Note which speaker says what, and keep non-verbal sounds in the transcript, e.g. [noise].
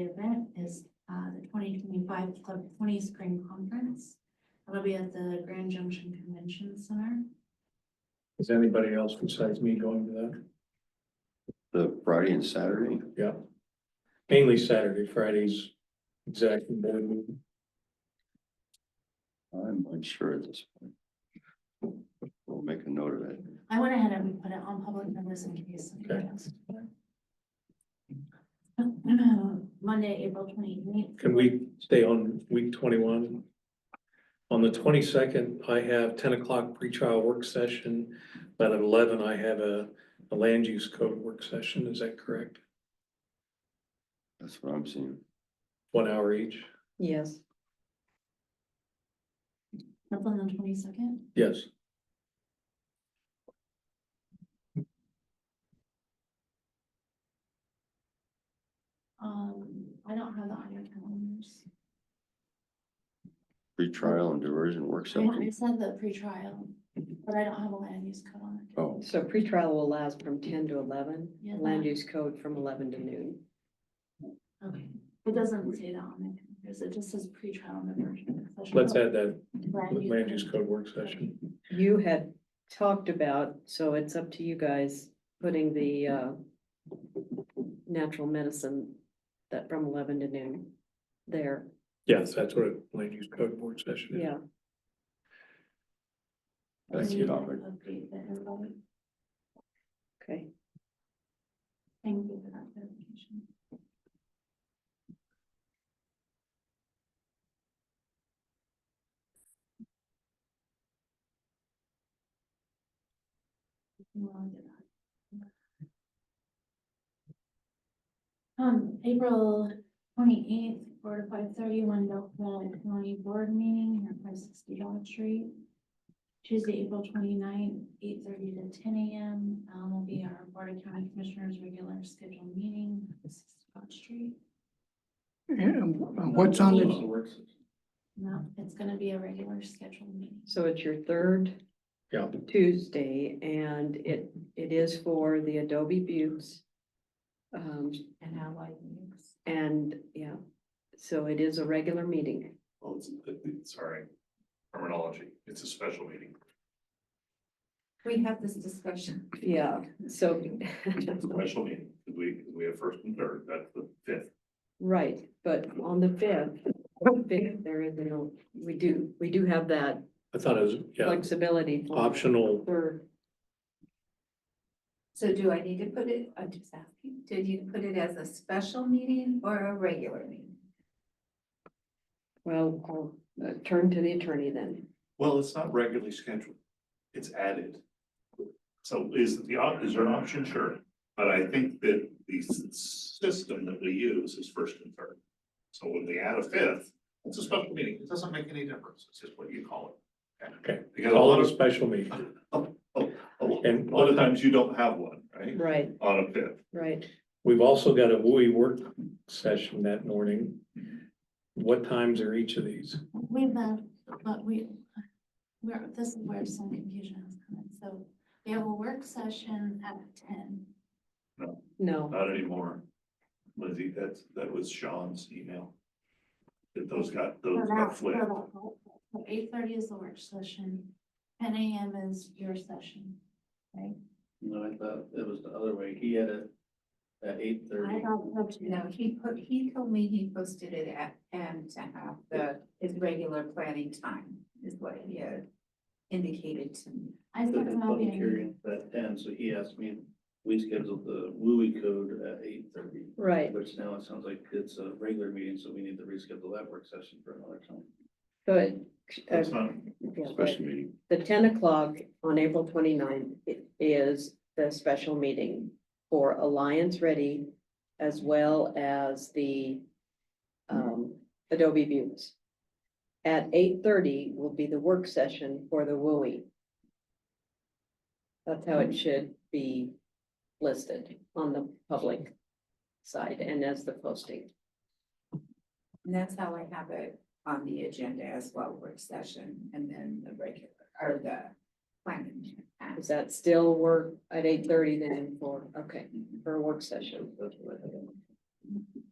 Speaker 1: The event is uh, the twenty twenty-five Club Twenty Spring Conference. It'll be at the Grand Junction Convention Center.
Speaker 2: Is anybody else besides me going to that?
Speaker 3: The Friday and Saturday?
Speaker 2: Yeah. Mainly Saturday, Fridays, exactly, board meeting.
Speaker 3: I'm unsure at this point. We'll make a note of that.
Speaker 1: I went ahead and put it on public notice in case.
Speaker 2: Okay.
Speaker 1: somebody else. [clears throat] Monday, April twenty-eighth.
Speaker 2: Can we stay on week twenty-one? On the twenty-second, I have ten o'clock pretrial work session, but at eleven, I have a, a land use code work session, is that correct?
Speaker 3: That's what I'm seeing.
Speaker 2: One hour each?
Speaker 4: Yes.
Speaker 1: That's on the twenty-second.
Speaker 2: Yes.
Speaker 1: Um, I don't have the audio calendars.
Speaker 3: Pre-trial and diversion work
Speaker 1: I
Speaker 3: session.
Speaker 1: said the pre-trial, but I don't have a land use code on it.
Speaker 3: Oh,
Speaker 4: So pretrial allows from ten to eleven,
Speaker 1: Yeah.
Speaker 4: land use code from eleven to noon.
Speaker 1: Okay. It doesn't say that on the calendars. It just says pre-trial and diversion.
Speaker 2: Let's add that,
Speaker 1: Land
Speaker 2: land
Speaker 1: use
Speaker 2: use
Speaker 1: code.
Speaker 2: code work session.
Speaker 4: You had talked about, so it's up to you guys, putting the uh. Natural medicine that from eleven to noon there,
Speaker 2: Yes, that's what a land use code work session is.
Speaker 4: yeah.
Speaker 3: that's the topic.
Speaker 1: Update that everybody.
Speaker 4: Okay,
Speaker 1: Thank you for that clarification. Well, I'll get that. Um, April twenty-eighth, four to five thirty, one Belknap County Board Meeting, here at five sixty Dodge Street. Tuesday, April 29th, eight thirty to ten AM, um, will be our Board of County Commissioners regular scheduled meeting, this is Scott Street.
Speaker 5: And what's on the,
Speaker 1: No, it's gonna be a regular scheduled meeting.
Speaker 4: so it's your third
Speaker 2: Yeah,
Speaker 4: Tuesday and it, it is for the Adobe Buttes. Um,
Speaker 1: And allied meetings.
Speaker 4: and, yeah, so it is a regular meeting.
Speaker 6: Well, Oh, it's, it- it- sorry, terminology, it's a special meeting.
Speaker 1: We have this discussion.
Speaker 4: Yeah, so. [laughs]
Speaker 6: It's a special meeting, 'cause we, 'cause we have first and third, that's the fifth.
Speaker 4: Right, but on the fifth, fifth, there is, no. we do, we do have that
Speaker 2: I thought it was, yeah,
Speaker 4: flexibility. for-
Speaker 2: optional.
Speaker 4: For,
Speaker 7: So do I need to put it, I'm just asking, do you need to put it as a special meeting or a regular meeting?
Speaker 4: well, I'll uh, turn to the attorney then.
Speaker 6: Well, it's not regularly scheduled, it's added. So is the, op- is there an option? Sure, but I think that the s- system that we use is first and third. So when we add a fifth, it's a special meeting, it doesn't make any difference, it's just what you call it.
Speaker 2: Okay.
Speaker 6: Because a
Speaker 2: Call
Speaker 6: lot
Speaker 2: it a
Speaker 6: of,
Speaker 2: special meeting.
Speaker 6: a lot-
Speaker 2: And-
Speaker 6: a lot of times you don't have one, right?
Speaker 4: Right,
Speaker 6: On a fifth.
Speaker 4: right.
Speaker 2: We've also got a WUI work session that morning. What times are each of these?
Speaker 1: We've had, but we, we're, this is where some confusion is coming, so we have a work session at ten.
Speaker 4: No,
Speaker 6: Not anymore. Lizzie, that's, that was Sean's email. That those got, those got flipped.
Speaker 1: Eight thirty is the work session, ten AM is your session, right?
Speaker 8: No, I thought it was the other way. He had it at eight
Speaker 1: I
Speaker 8: thirty.
Speaker 1: don't know.
Speaker 7: You know, he put, he told me he posted it at, and to have the, his regular planning time is what he had indicated to me.
Speaker 1: I
Speaker 8: The
Speaker 1: said
Speaker 8: the
Speaker 1: not
Speaker 8: public
Speaker 1: being.
Speaker 8: hearing was at ten, so he asked me, if we scheduled the WUI code at eight thirty.
Speaker 4: right.
Speaker 8: Which now it sounds like it's a regular meeting, so we need to reschedule that work session for another time.
Speaker 4: So it, uh,
Speaker 6: That's not,
Speaker 4: yeah, right.
Speaker 3: Special meeting.
Speaker 4: the ten o'clock on April 29th i- is the special meeting for Alliance Ready as well as the um, Adobe Views. At eight thirty will be the work session for the WUI. That's how it should be listed on the public side and as the posting.
Speaker 7: And that's how I have it on the agenda as well, work session and then the regular, or the planning. time.
Speaker 4: Is that still work at eight thirty then for, okay, for a work session?
Speaker 8: That's what I had.